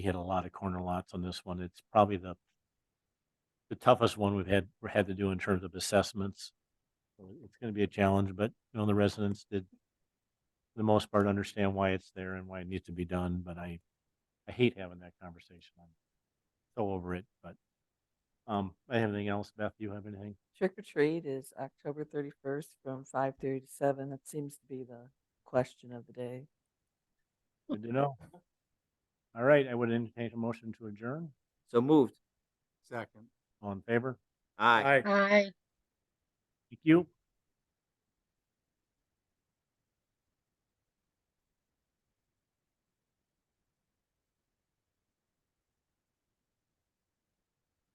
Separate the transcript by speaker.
Speaker 1: We hit a lot of corner lots on this one. It's probably the the toughest one we've had, we had to do in terms of assessments. So It's gonna be a challenge, but you know, the residents did for the most part understand why it's there and why it needs to be done, but I I hate having that conversation. I'm so over it, but um, I have anything else? Beth, you have anything?
Speaker 2: Trick or treat is October thirty-first from five thirty to seven. That seems to be the question of the day.
Speaker 1: Good to know. All right, I would entertain a motion to adjourn.
Speaker 3: So moved.
Speaker 4: Second.
Speaker 1: All in favor?
Speaker 3: Aye.
Speaker 5: Aye.
Speaker 1: Thank you.